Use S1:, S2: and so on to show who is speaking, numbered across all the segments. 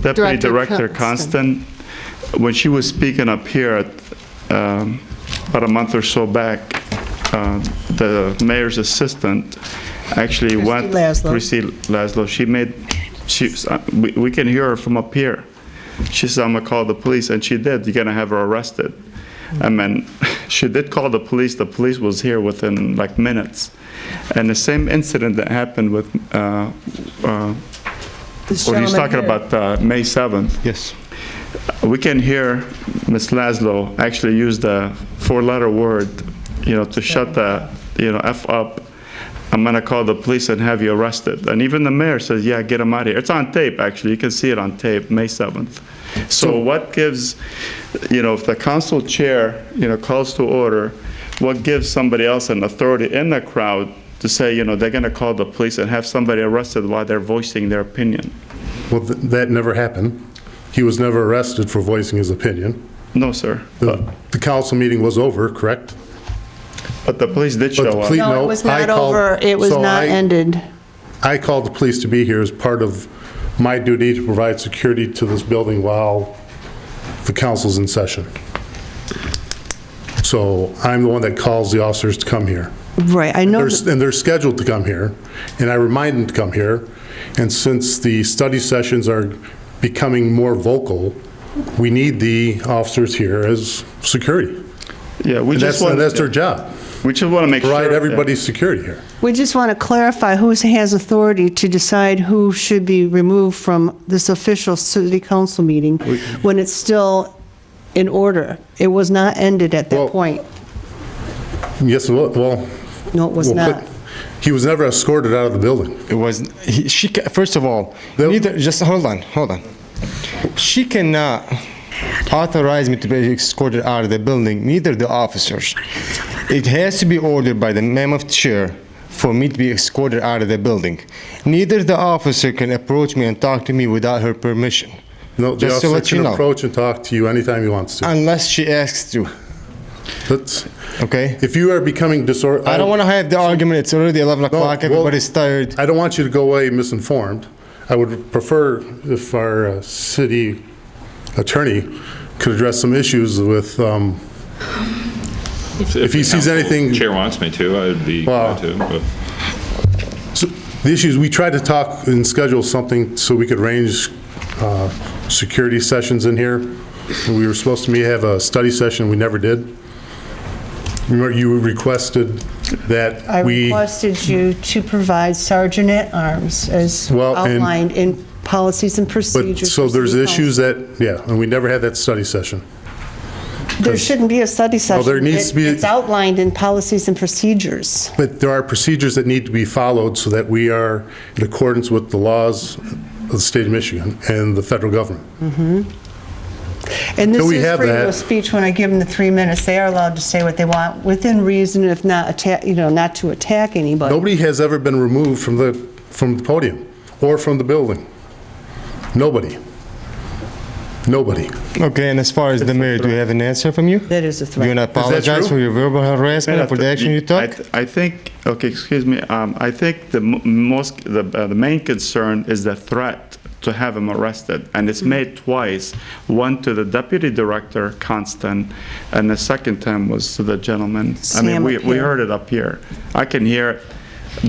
S1: Deputy
S2: Director
S1: Director Constant, when she was speaking up here at, um, about a month or so back, uh, the mayor's assistant actually went.
S3: Laszlo.
S1: Christy Laszlo, she made, she, uh, we we can hear her from up here. She said, "I'm gonna call the police," and she did. You're gonna have her arrested. I mean, she did call the police. The police was here within like minutes. And the same incident that happened with, uh, uh,
S3: This
S1: when he's
S3: gentleman
S1: talking
S3: here.
S1: about uh, May 7th,
S4: Yes.
S1: we can hear Ms. Laszlo actually use the four-letter word, you know, to shut the, you know, F up. I'm gonna call the police and have you arrested. And even the mayor says, yeah, get him out of here. It's on tape, actually. You can see it on tape, May 7th. So what gives, you know, if the council chair, you know, calls to order, what gives somebody else an authority in the crowd to say, you know, they're gonna call the police and have somebody arrested while they're voicing their opinion?
S5: Well, th- that never happened. He was never arrested for voicing his opinion.
S1: No, sir.
S5: The the council meeting was over, correct?
S1: But the police did
S5: But the
S1: show
S5: police-
S1: up.
S5: No,
S2: No, it was
S5: I
S2: not
S5: called-
S2: over, it was
S5: so
S2: not
S5: I-
S2: ended.
S5: I called the police to be here as part of my duty to provide security to this building while the council's in session. So I'm the one that calls the officers to come here.
S3: Right, I know,
S5: They're-
S3: that-
S5: And they're scheduled to come here, and I remind them to come here. And since the study sessions are becoming more vocal, we need the officers here as security.
S1: Yeah, we just
S5: And that's,
S1: want,
S5: and that's their job,
S1: we just want to make sure.
S5: provide
S1: that-
S5: everybody's security here.
S3: we just want to clarify who has authority to decide who should be removed from this official city council meeting when it's still in order. It was not ended at
S5: Well-
S3: that point.
S5: Yes, well, well.
S3: No, it was
S5: well, but
S3: not.
S5: He was never escorted out of the building.
S4: It was, he, she, ca- first of all,
S5: The-
S4: neither, just hold on, hold on. She cannot authorize me to be escorted out of the building, neither the officers. It has to be ordered by the mem of chair for me to be escorted out of the building. Neither the officer can approach me and talk to me without her permission,
S5: No, the
S4: Just
S5: officer
S4: to let you
S5: can
S4: know. Uh,
S5: approach and talk to you anytime he wants to.
S4: unless she asks to,
S5: That's,
S4: okay?
S5: if you are becoming disorganized.
S4: I don't want to have the argument, it's already 11 o'clock,
S5: well-
S4: everybody's tired.
S5: I don't want you to go away misinformed. I would prefer if our uh, city attorney could address some issues with, um, If he
S6: the
S5: sees
S6: council
S5: anything-
S6: Chair wants me to, I'd be
S5: Wow.
S6: glad to, but
S5: so the issues, we tried to talk and schedule something so we could arrange uh, security sessions in here. We were supposed to be, have a study session, we never did. Remember, you requested
S3: I
S5: that we,
S3: requested you to provide sergeant at arms as
S5: Well, and-
S3: outlined in policies and
S5: but,
S3: procedures.
S5: so
S3: for
S5: there's
S3: city
S5: issues that, yeah, and we never had that study session.
S3: council. There shouldn't be a study session.
S5: there needs
S3: It-
S5: to be-
S3: It's outlined in policies and procedures.
S5: But there are procedures that need to be followed so that we are in accordance with the laws of the state of Michigan and the federal government.
S3: And this
S5: Till we
S3: is
S5: have
S3: freedom
S5: that-
S3: of speech when I give them the three minutes. They are allowed to say what they want within reason, if not attack, you know, not to attack anybody.
S5: Nobody has ever been removed from the, from the podium or from the building. Nobody. Nobody.
S4: Okay, and as far as the mayor, do you have an answer from you?
S3: That is a
S4: Do you
S3: threat.
S4: want to apologize
S5: true?
S4: for your verbal harassment and for the action you
S1: I
S4: took?
S1: th- I think, okay, excuse me, um, I think the mo- most, the, uh, the main concern is the threat to have him arrested, and it's made twice, one to the deputy director, Constant, and the second time was to the gentleman. I mean,
S3: Sam
S1: we,
S3: up
S1: we
S3: here.
S1: heard it up here. I can hear it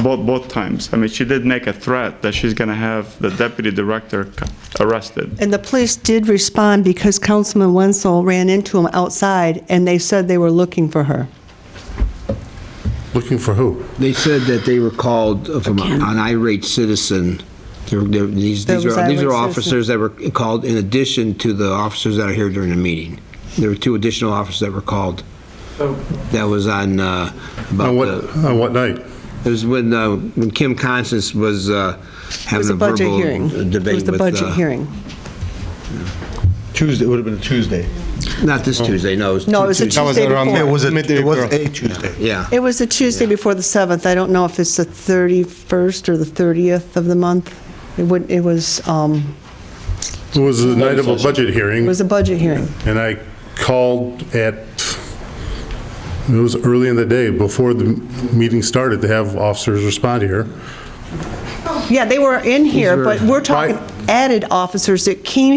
S1: both, both times. I mean, she did make a threat that she's gonna have the deputy director c- arrested.
S3: And the police did respond because Councilman Wenzel ran into him outside, and they said they were looking for her.
S5: Looking for who?
S7: They said that they were called from an irate citizen. They're- they're- These
S3: There
S7: these
S3: was
S7: are,
S3: irate
S7: these
S3: citizen.
S7: are officers that were called in addition to the officers that are here during the meeting. There were two additional officers that were called. That was on, uh, about
S5: On what,
S7: the-
S5: on what night?
S7: it was when, uh, when Kim Constance was uh,
S3: It was
S7: having
S3: a
S7: a
S3: budget
S7: verbal
S3: hearing.
S7: debate with.
S3: It was the budget
S7: uh,
S3: hearing.
S8: Tuesday, it would have been a Tuesday. Oh.
S7: Not this Tuesday, no, it was
S3: No,
S7: two
S3: it was a
S7: Tuesdays.
S4: That was
S3: Tuesday
S4: around
S3: before.
S8: It was a, it was
S4: Mid-April.
S8: a Tuesday.
S7: Yeah.
S3: It was the Tuesday before the 7th. I don't know if it's the 31st or the 30th of the month. It would, it was, um,
S5: It was the night of a budget
S3: it
S5: hearing,
S3: was a budget hearing.
S5: and I called at, it was early in the day, before the meeting started, to have officers respond here.
S3: Yeah, they were in here, but we're talking,
S5: Right.
S3: added officers that came